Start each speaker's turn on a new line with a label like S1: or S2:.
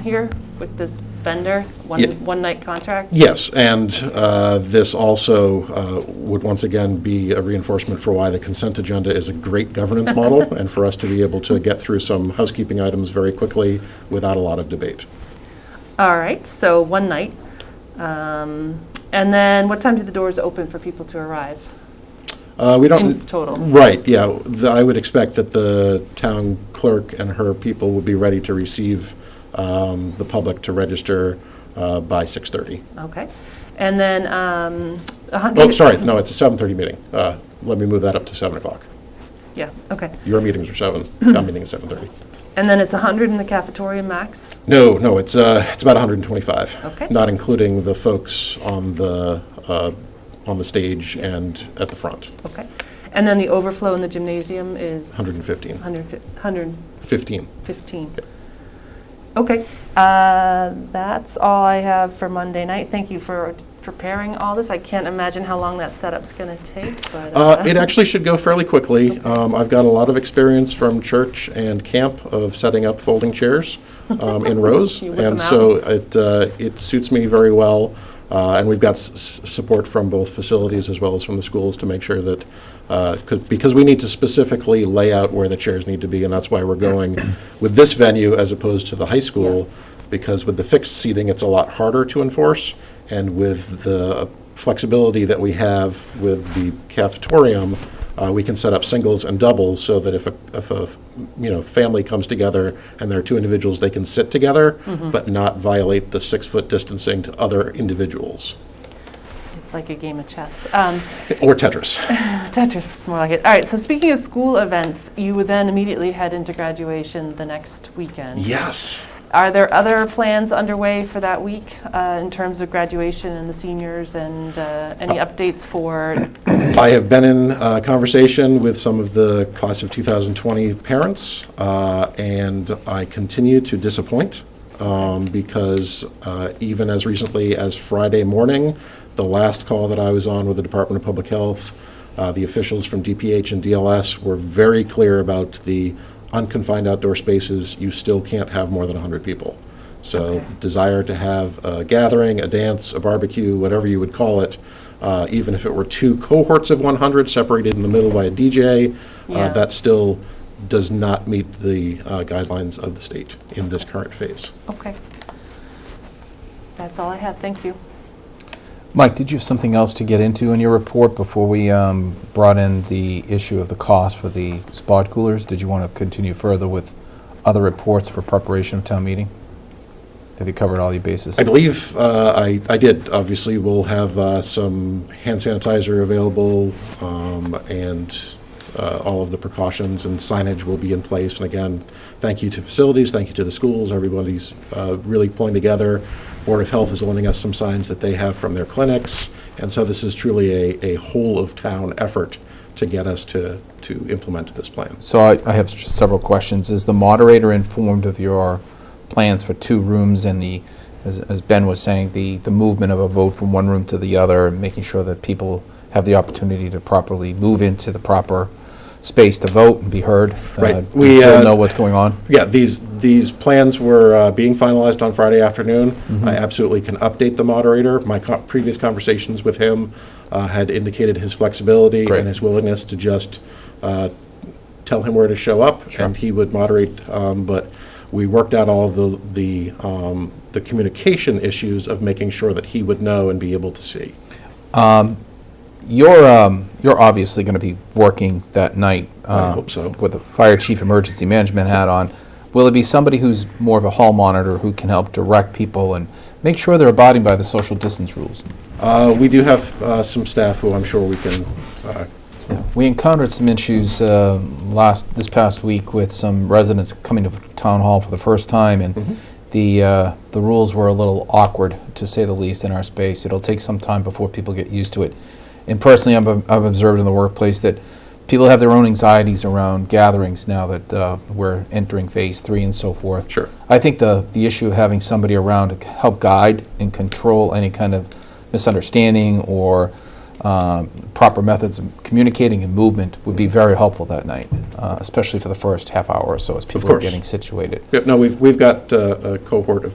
S1: here with this vendor, one,
S2: Yeah.
S1: one night contract?
S2: Yes, and uh, this also uh, would once again be a reinforcement for why the consent agenda is a great governance model, and for us to be able to get through some housekeeping items very quickly without a lot of debate.
S1: All right, so one night. Um, And then what time do the doors open for people to arrive?
S2: Uh, We don't...
S1: In total.
S2: Right, yeah. The- I would expect that the town clerk and her people would be ready to receive um, the public to register uh, by 6:30.
S1: Okay. And then, um, a hundred.
S2: Oh, sorry, no, it's a 7:30 meeting. Uh, Let me move that up to 7 o'clock.
S1: Yeah, okay.
S2: Your meetings are 7, town meeting is 7:30.
S1: And then it's a 100 in the cafeteria max?
S2: No, no, it's, uh, it's about 125.
S1: Okay.
S2: Not including the folks on the, uh, on the stage and at the front,
S1: Okay. And then the overflow in the gymnasium is?
S2: 115,
S1: 100.
S2: 15.
S1: 15. Okay, uh, that's all I have for Monday night. Thank you for preparing all this. I can't imagine how long that setup's going to take, but.
S2: Uh, It actually should go fairly quickly. Um, I've got a lot of experience from church and camp of setting up folding chairs um, in rows.
S1: You whip 'em
S2: And so it, uh, it suits me very well. Uh, And we've got s- s- support from both facilities as well as from the schools to make sure that, uh, 'cause- because we need to specifically lay out where the chairs need to be, and that's why we're going with this venue as opposed to the high school, because with the fixed seating, it's a lot harder to enforce, and with the flexibility that we have with the cafetorium, uh, we can set up singles and doubles so that if a, if a, you know, family comes together and there are two individuals, they can sit together, but not violate the six-foot distancing to other individuals.
S1: It's like a game of chess. Um,
S2: Or Tetris.
S1: Tetris is more like it. All right, so speaking of school events, you would then immediately head into graduation the next weekend.
S2: Yes.
S1: Are there other plans underway for that week uh, in terms of graduation and the seniors and uh, any updates for
S2: I have been in uh, conversation with some of the class of 2020 parents, uh, and I continue to disappoint um, because uh, even as recently as Friday morning, the last call that I was on with the Department of Public Health, uh, the officials from DPH and DLS were very clear about the unconfined outdoor spaces. You still can't have more than 100 people. So the desire to have a gathering, a dance, a barbecue, whatever you would call it, uh, even if it were two cohorts of 100 separated in the middle by a DJ,
S1: Yeah.
S2: uh, that still does not meet the uh, guidelines of the state in this current phase.
S1: Okay. That's all I have, thank you.
S3: Mike, did you have something else to get into in your report before we um, brought in the issue of the cost for the spot coolers? Did you want to continue further with other reports for preparation of town meeting? Have you covered all your bases?
S2: I believe uh, I I did. Obviously, we'll have uh, some hand sanitizer available, um, and uh, all of the precautions and signage will be in place. And again, thank you to facilities, thank you to the schools, everybody's uh, really pulling together. Board of Health is lending us some signs that they have from their clinics, and so this is truly a a whole-of-town effort to get us to to implement this plan.
S3: So I I have s- several questions. Is the moderator informed of your plans for two rooms and the, as as Ben was saying, the the movement of a vote from one room to the other, and making sure that people have the opportunity to properly move into the proper space to vote and be heard?
S2: Right.
S3: Uh, Do
S2: We,
S3: you
S2: uh,
S3: still know what's going on?
S2: Yeah, these, these plans were uh, being finalized on Friday afternoon. I absolutely can update the moderator. My co- previous conversations with him uh, had indicated his flexibility
S3: Great.
S2: and his willingness to just uh, tell him where to show up, and he would moderate. um, But we worked out all of the, the um, the communication issues of making sure that he would know and be able to see.
S3: You're, um, you're obviously going to be working that night.
S2: I
S3: uh,
S2: hope so.
S3: With a fire chief emergency management hat on. Will it be somebody who's more of a hall monitor who can help direct people and make sure they're abiding by the social distance rules?
S2: Uh, We do have uh, some staff who I'm sure we can uh,
S3: We encountered some issues uh, last, this past week with some residents coming to town hall for the first time, and the, uh, the rules were a little awkward, to say the least, in our space. It'll take some time before people get used to it. And personally, I've I've observed in the workplace that people have their own anxieties around gatherings now that uh, we're entering phase three and so forth.
S2: Sure.
S3: I think the, the issue of having somebody around to c- help guide and control any kind of misunderstanding or um, proper methods of communicating and movement would be very helpful that night, uh, especially for the first half hour or so as people are
S2: course.
S3: getting situated.
S2: Yeah, No, we've, we've got uh, a cohort of